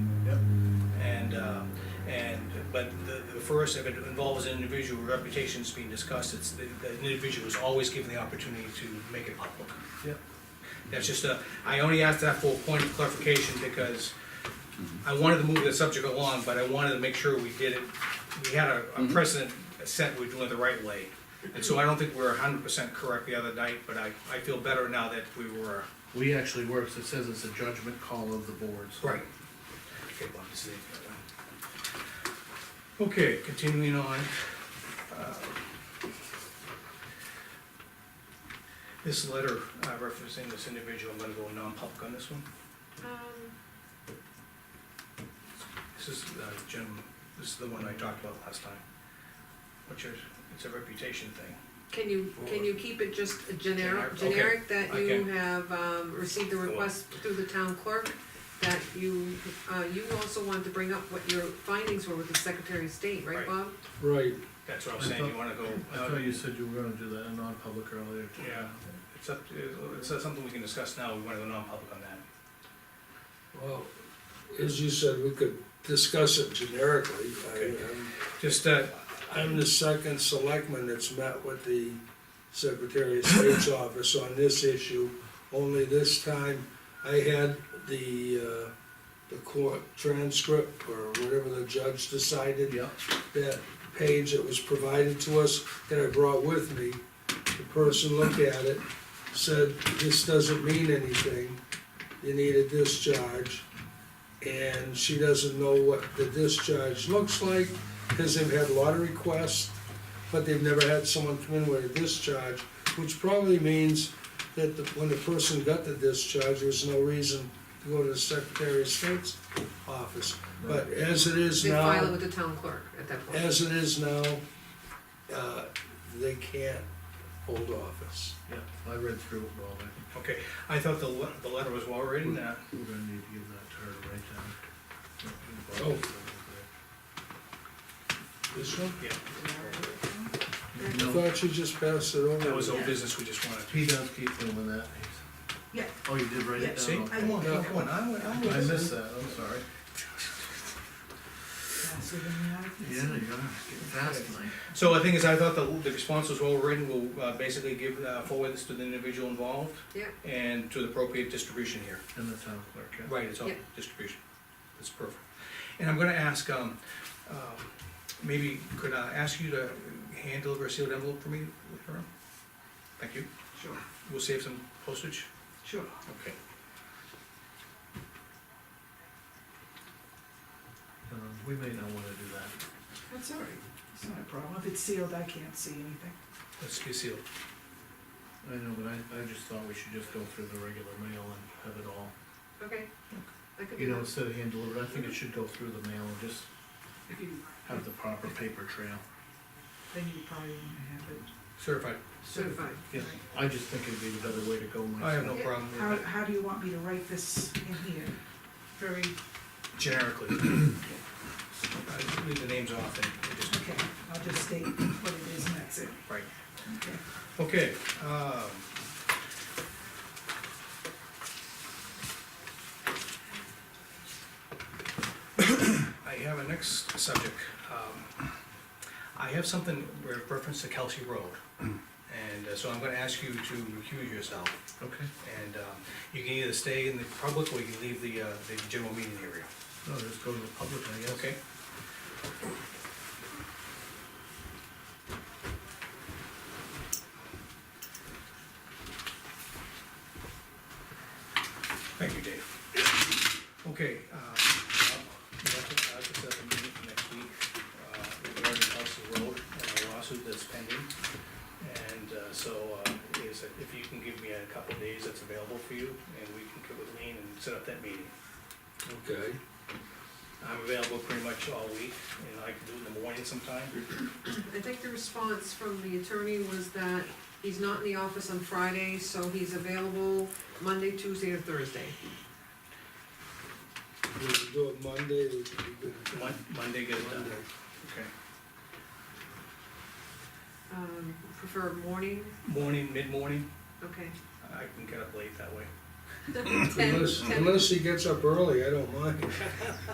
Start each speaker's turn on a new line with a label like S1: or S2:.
S1: uh, But the, the first, if it involves an individual reputations being discussed, it's, the, the individual is always given the opportunity to make it public.
S2: Yeah.
S1: That's just a, I only asked that for a point of clarification because I wanted to move the subject along, but I wanted to make sure we did it, we had a a precedent set, we're doing it the right way. And so I don't think we were hundred percent correct the other night, but I, I feel better now that we were.
S2: We actually works, it says it's a judgment call of the boards.
S1: Right. Okay, continuing on. uh, This letter uh, referencing this individual, I'm gonna go non-public on this one.
S3: Um,
S1: This is, uh, Jim, this is the one I talked about last time. What's your, it's a reputation thing.
S3: Can you, can you keep it just
S1: Generic,
S3: generic,
S1: okay.
S3: generic that
S1: I
S3: you
S1: can.
S3: have, um, received the request through the town clerk? That you, uh, you also wanted to bring up what your findings were with the Secretary of State, right,
S1: Right.
S3: Bob?
S4: Right,
S1: That's what I'm
S2: I
S1: saying, you
S2: thought-
S1: wanna go,
S2: I
S1: uh,
S2: thought you said you were gonna do that in non-public earlier. too.
S1: Yeah. it's up, to- it's something we can discuss now, we wanna go non-public on that.
S4: well, as you said, we could discuss it generically. I-
S1: Okay.
S4: I'm-
S1: Just, uh,
S4: I'm the second selectman that's met with the Secretary of State's office on this issue. Only this time, I had the, uh, the court transcript or whatever the judge decided.
S2: Yeah,
S4: that page that was provided to us that I brought with me. The person looked at it, said, this doesn't mean anything, you need a discharge. And she doesn't know what the discharge looks like, because they've had a lot of requests, but they've never had someone come in with a discharge, which probably means that the- when the person got the discharge, there was no reason to go to the Secretary of State's office. But as it is
S3: They
S4: now.
S3: file it with the town clerk at that point.
S4: As it is now, uh, they can't hold office.
S2: yeah, I read through it, Bob, I think
S1: okay, I thought the, le- the letter was well written, uh,
S2: we're gonna need to give that to her to write down.
S4: This one?
S1: yeah,
S4: I
S2: No,
S4: thought you just passed it over.
S1: that was old business, we just wanted to.
S2: he does keep doing that. he's-
S5: Yeah.
S2: Oh, you did write it down?
S1: See,
S2: Okay.
S1: come on, come on, I would, I would.
S2: I missed that, I'm sorry.
S5: Faster than the eye can
S2: Yeah,
S5: see.
S2: you're getting fast tonight.
S1: So I think is, I thought the, the response was well written, we'll uh, basically give, uh, forward this to the individual involved
S3: Yeah,
S1: and to the appropriate distribution here.
S2: And the town clerk, yeah.
S1: Right, it's all
S3: Yeah.
S1: distribution, that's perfect. And I'm gonna ask, um, um, maybe could I ask you to hand deliver a sealed envelope for me later on? Thank you,
S5: Sure,
S1: we'll save some postage.
S5: sure.
S1: Okay.
S2: Um, We may not wanna do that.
S5: That's all right. It's not a problem. If it's sealed, I can't see anything.
S1: Let's be sealed.
S2: I know, but I, I just thought we should just go through the regular mail and have it all.
S3: okay. I could
S2: You
S3: do
S2: know,
S3: that.
S2: instead of hand delivered, I think it should go through the mail and just
S5: If you,
S2: have the proper paper trail.
S5: then you probably want to have it
S1: Certified,
S3: Certified.
S2: Yeah, I just think it'd be the better way to go myself.
S1: I have no problem
S5: How,
S1: with that,
S5: how do you want me to write this in here? Very,
S1: generically. Uh, Leave the names off and just,
S5: okay, I'll just state what it is and that's it.
S1: right.
S5: Okay.
S1: Okay, um. I have a next subject. Um, I have something with reference to Kelsey Road. And uh, so I'm gonna ask you to recuse yourself.
S2: Okay,
S1: And, um, you can either stay in the public or you can leave the, uh, the general meeting area.
S2: no, just go to the public, I guess.
S1: Okay. Thank you, Dave. Okay, uh, we have to, I have to set up a meeting for next week, uh, regarding Hudson Road and the lawsuit that's pending. And, uh, so, uh, is, it- if you can give me a couple days that's available for you, and we can get with Lean and set up that meeting.
S4: Okay,
S1: I'm available pretty much all week, and I can do it in the morning sometime.
S3: I think the response from the attorney was that he's not in the office on Friday, so he's available Monday, Tuesday, or Thursday.
S4: we can do it Monday, we can do it
S1: Mon- Monday, get it done.
S4: Monday.
S1: Okay.
S3: Um, prefer morning,
S1: Morning, mid-morning,
S3: okay.
S1: I can get up late that way.
S3: Ten,
S4: Unless,
S3: ten.
S4: unless he gets up early, I don't mind.